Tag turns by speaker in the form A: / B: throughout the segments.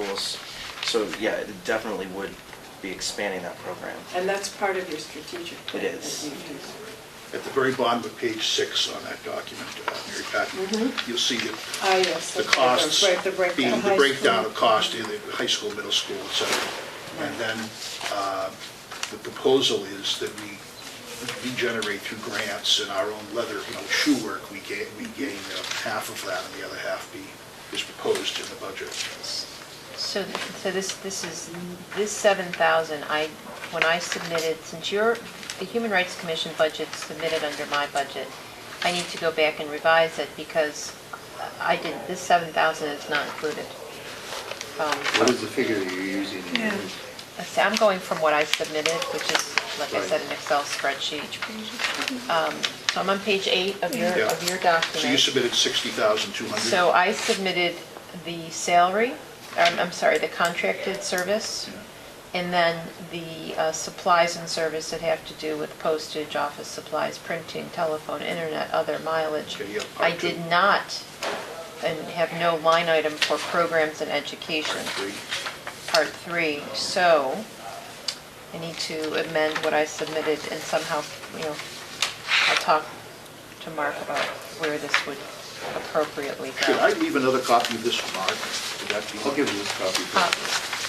A: those. So, yeah, it definitely would be expanding that program.
B: And that's part of your strategic plan.
A: It is.
B: that you do.
C: At the very bottom of page six on that document, uh, Mary Pat, you'll see the
B: Ah, yes.
C: the
B: that's
C: costs,
B: right, The
C: being
B: breakdown.
C: the breakdown of cost in the high school, middle school, et cetera. And then uh, the proposal is that we we generate through grants and our own leather, you know, shoe work, we gain, we gain uh, half of that, and the other half be, is proposed in the budget.
D: So, th- so this, this is, this 7,000, I, when I submitted, since your, the Human Rights Commission budget submitted under my budget, I need to go back and revise it because I didn't, this 7,000 is not included. Um,
E: What is the figure that you're using?
B: Yeah.
D: let's see, I'm going from what I submitted, which is, like I
E: Right.
D: said, an Excel spreadsheet. Um, So I'm on page eight of your,
C: Yeah.
D: of your
C: So you
D: document.
C: submitted 60,200.
D: So I submitted the salary, um, I'm sorry, the contracted service, and then the uh, supplies and service that have to do with postage, office supplies, printing, telephone, internet, other mileage.
C: Okay, yeah,
D: I
C: okay.
D: did not, and have no line item for programs and education,
C: Three.
D: part three. So I need to amend what I submitted and somehow, you know, I'll talk to Mark about where this would appropriately go.
C: Should I leave another copy of this for Mark? Would that be?
E: I'll give you this copy.
D: Uh,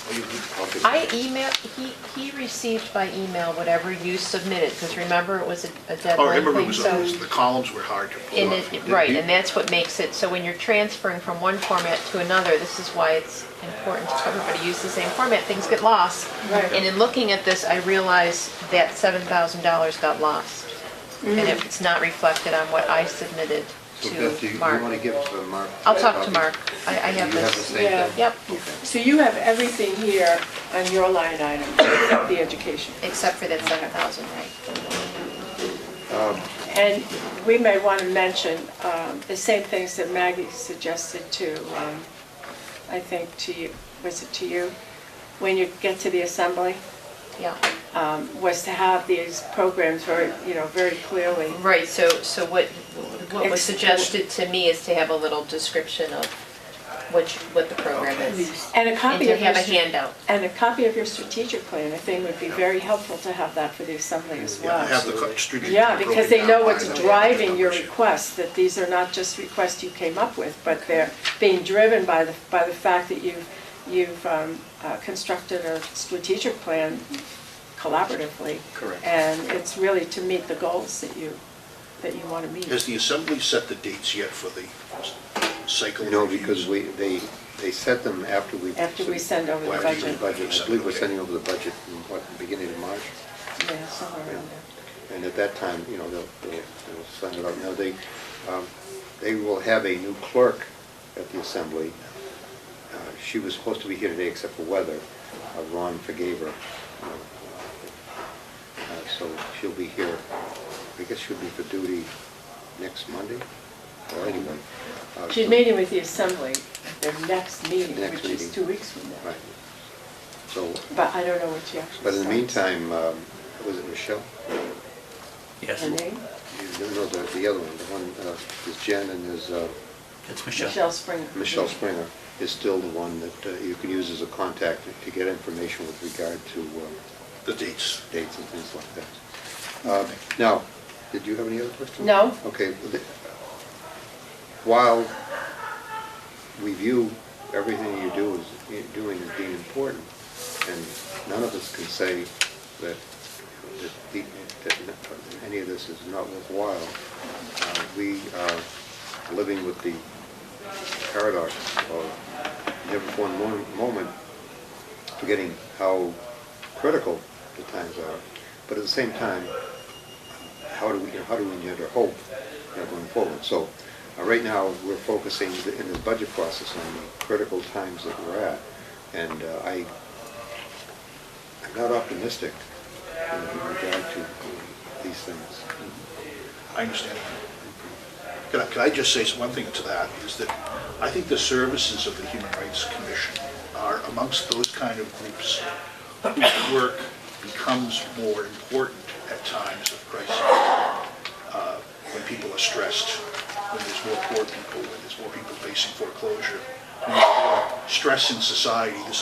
C: Oh, you do?
E: I'll give
D: I
E: it.
D: emailed, he, he received by email whatever you submitted, because remember, it was a a
C: Oh, I
D: deadline
C: remember it
D: thing,
C: was,
D: so.
C: the columns were hard to
D: And
C: pull up.
D: it, right, and that's what makes it, so when you're transferring from one format to another, this is why it's important to everybody use the same format, things get lost.
B: Right.
D: And in looking at this, I realized that seven thousand dollars got lost. And if it's not reflected on what I submitted
E: So Beth, do you
D: to
E: you
D: Mark.
E: want to give it to Mark?
D: I'll talk
E: Copy?
D: to Mark, I, I have
E: You have the
D: this.
E: same
B: Yeah.
E: thing?
D: Yep,
B: So you have everything here on your line item, except the education.
D: except for that seven thousand, right?
B: And we may want to mention um, the same things that Maggie suggested to, um, I think to you, was it to you? When you get to the assembly,
D: Yeah.
B: um, was to have these programs very, you know, very clearly.
D: Right, so, so what, what was
B: Ex-
D: suggested to me is to have a little description of what, you- what the program is.
B: And a
D: And
B: copy
D: to
B: of your...
D: have a
B: str-
D: handout.
B: And a copy of your strategic plan, I think would be very helpful to have that for the assembly as
C: Yeah,
B: well.
C: I have the co- strategic
B: Yeah, because they
C: broken
B: know
C: down
B: what's
C: by the-
B: driving your
C: Yeah.
B: requests, that these are not just requests you came up with, but they're being driven by the, by the fact that you've, you've um, uh, constructed a strategic plan collaboratively.
A: Correct.
B: And it's really to meet the goals that you, that you want to meet.
C: Has the assembly set the dates yet for the cycle?
E: No,
C: reviews?
E: because we, they, they set them after we.
B: After we send over the
E: Well, after the
B: budget.
E: budget. I believe we're sending over the budget in, what, the beginning of March?
B: Yeah, somewhere around there.
E: And at that time, you know, they'll, they'll they'll send it out. Now, they, um, they will have a new clerk at the assembly. Uh, She was supposed to be here today except for weather. Uh, Ron forgave her. you know. Uh, So she'll be here, I guess she'll be for duty next Monday, or anyway. Uh,
B: She's meeting with the assembly at their next meeting,
E: Next
B: which is
E: meeting.
B: two weeks from now.
E: Right. So,
B: But I don't know what she actually
E: but in the
B: starts.
E: meantime, um, was it Michelle?
F: Yes,
B: Her name?
E: You know, the the other one, the one, uh, is Jen and is uh,
F: it's Michelle.
B: Michelle Springer.
E: Michelle Springer is still the one that uh, you can use as a contact to get information with regard to uh,
C: The dates.
E: dates and things like that. Uh, Now, did you have any other questions?
B: No.
E: Okay. well, the- While review, everything you do is, you're doing is being important, and none of us can say that, that the- that any of this is not worthwhile. Uh, We are living with the paradox of never for one mo- moment forgetting how critical the times are, but at the same time, how do we, how do we engender hope you know, going forward? So, uh, right now, we're focusing the- in the budget process on the critical times that we're at, and uh, I, I'm not optimistic you know, with regard to these things.
C: I understand. Can I, can I just say one thing to that, is that I think the services of the Human Rights Commission are amongst those kind of groups whose work becomes more important at times of crisis, uh, when people are stressed, when there's more poor people, when there's more people facing foreclosure, when there's more stress in society, this